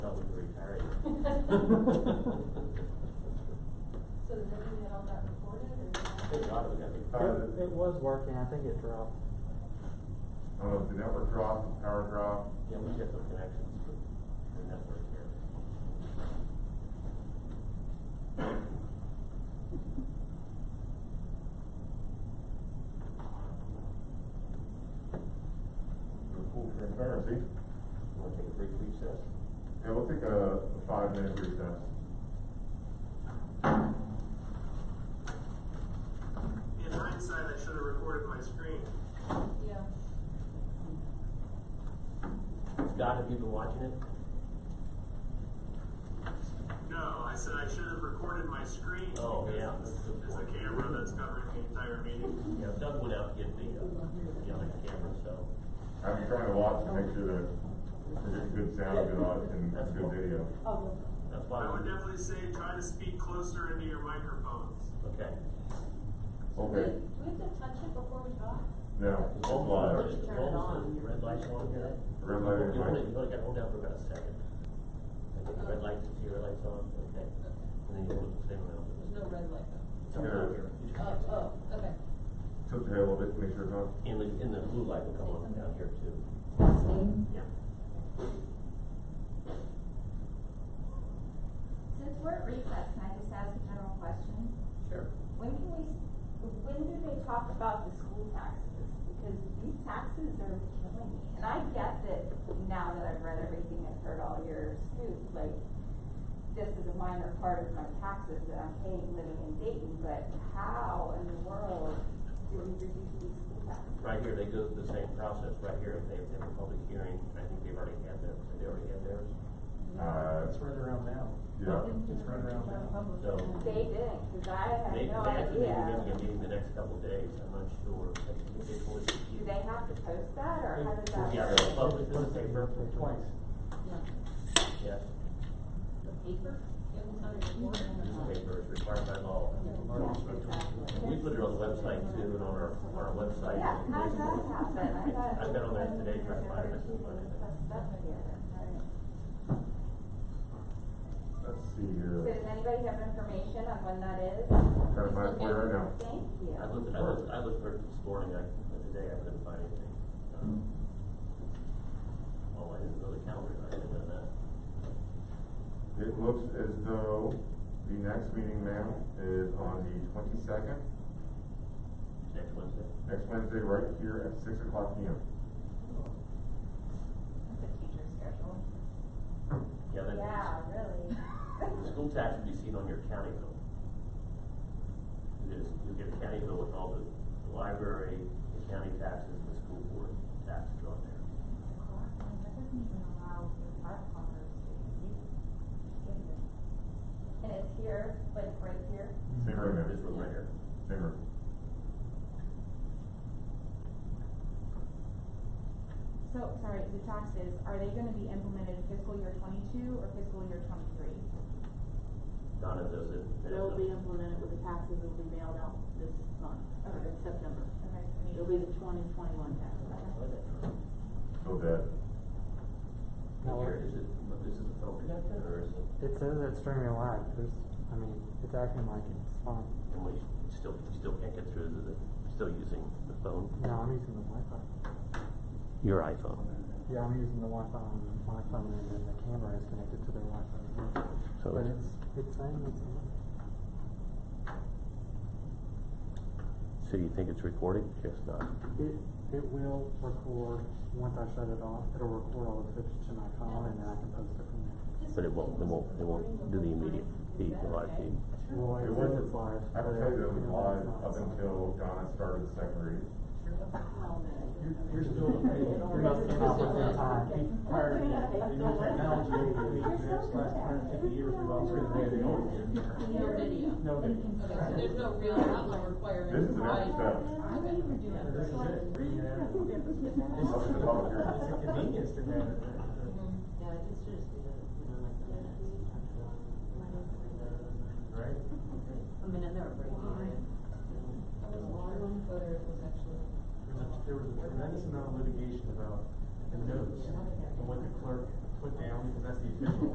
So does that mean that all got recorded or? It dropped, it got big power. It, it was working, I think it dropped. I don't know, if Uh, the network dropped, the power dropped, Yeah, we get some connections with the network here. the full transparency. Wanna take a brief recess? Yeah, we'll take a five-minute recess. In hindsight, I should have recorded my screen. Yeah. Scott, have you been watching it? No, I said I should have recorded my screen. Oh, yeah, because that's a good There's a point. camera that's covering the entire meeting. Yeah, Doug went out to get the, uh, the other camera, so. I've been trying to watch to make sure that we're getting good sound, good audio, and That's good cool. video. Oh. That's why. I would definitely say try to speak closer into your microphones. Okay. Okay, Do we have to touch it before we talk? now, hold on, Turn it on. Red light's on here. red light You only, and you white. only gotta hold down for about a second. I think the red light, see your light's on, okay. And then you hold it the same amount. There's no red light It's though. on here. You just- Oh, oh, okay. tilt your head a little bit to make sure it's on. And the, and the blue light will come on down here too. Yeah. Since we're at recess, can I just ask a general question? Sure. When can we, when do they talk about the school taxes? Because these taxes are killing me. And I get that now that I've read everything and heard all your scoop, like, this is a minor part of my taxes that I'm paying living in Dayton, but how in the world do we reduce these school taxes? Right here, they go through the same process right here. If they, they have a public hearing, I think they've already had theirs, they already had theirs. Uh, It's right around now. yeah, It's right around now. So- They didn't, because I have They, they no have to be having idea. a meeting the next couple of days, I'm not sure. I think they did one this Do year. they have to post that, or how does that? Yeah, work? they'll publish it in the paper. Twice. Yes, The paper? It was under the board. this paper is required by law. Uh-huh. Yeah, exactly. We put it on the website too, and on our, on our website. Yeah, how does that happen? I thought. I've been on that today, trying to find it. That's stuff here, alright. let's see So here, does anybody have information on when that is? trying to find it for you right now. Thank you. I looked, I looked, I looked for it this morning, I, but today I couldn't find anything. Um, Oh, I didn't know the calendar, I didn't know that. It looks as though the next meeting, ma'am, is on the twenty-second, Next Wednesday? next Wednesday, right here at six o'clock P M. That's a teacher schedule. Yeah, that. Yeah, really. The school tax will be seen on your county bill. It is, you'll get a county bill with all the, the library, the county taxes, the school board taxes on there. That doesn't even allow your park owners to use it. And it's here, like right here? Same room, This ma'am, one right here. same room. So, sorry, the taxes, are they gonna be implemented fiscal year twenty-two or fiscal year twenty-three? Donna does it. It'll be implemented with the taxes that will be mailed out this month, or in September. Okay. It'll be the twenty twenty-one tax. Go dead. Now, here, is it, is it the phone connected or is it, It says it's streaming live, there's, I mean, it's acting like it's fine. and we still, you still can't get through, is it, still using the phone? No, I'm using the Wi-Fi. Your iPhone. Yeah, I'm using the Wi-Fi on my phone and then the camera is connected to their Wi-Fi. So But it's- it's, it's saying it's on. So you think it's recorded? Yes, not. It, it will record, once I shut it off, it'll record all the footage to my phone and then I can post it from there. But it won't, it won't, it won't do the immediate feed, the live feed. Well, It it wasn't says it's live. I but can tell you that it was you know, live it's up not. until Donna started the second reading. You're, you're still, hey, you're not Must not with your time. prior to the new technology, we You're so experienced last good at hundred it. fifty years, we've all seen the way they always did. No video. No, they didn't. Okay, so there's no real outline requiring. This is an extra step. This is it. This Up to the public hearing. It's a convenience to have it. Mm. Yeah, it's just, you know, like the minutes. Right? I mean, I never break it. whether it was actually. There was a- There was a tremendous amount of litigation about the notes and what the clerk put down, because that's the official